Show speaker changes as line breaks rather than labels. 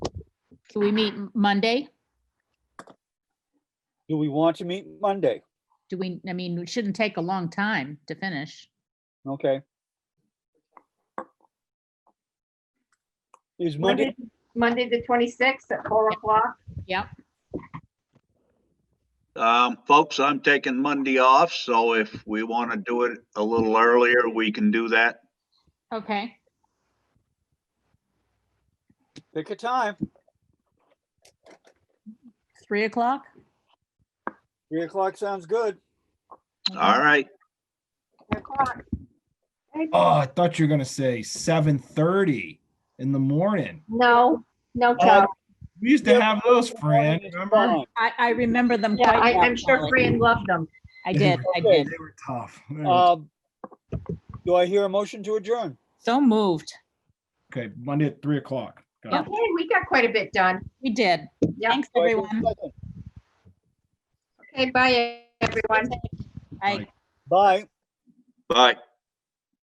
Can we meet M- Monday?
Do we want to meet Monday?
Do we, I mean, it shouldn't take a long time to finish.
Okay. Is Monday,
Monday, the twenty-sixth at four o'clock.
Yep.
Um, folks, I'm taking Monday off, so if we want to do it a little earlier, we can do that.
Okay.
pick a time,
Three o'clock?
three o'clock sounds good.
All right,
Three o'clock. Okay.
Oh, I thought you were gonna say seven thirty in the morning.
No, no,
Uh,
Charlie.
We used to
Yep.
have those, Fran. Remember?
Fine.
I, I remember them
Yeah,
quite
I,
well.
I'm sure
Molly.
Fran loved them.
I did, I
Okay.
did. Uh,
They were tough. They were-
Um, Do I hear a motion to adjourn?
So moved.
Okay, Monday at three o'clock. Got it.
Okay, we got quite a bit done.
We did.
Yeah,
Thanks,
Do I hear a
everyone.
second?
okay, bye, everyone.
Bye.
Bye.
bye.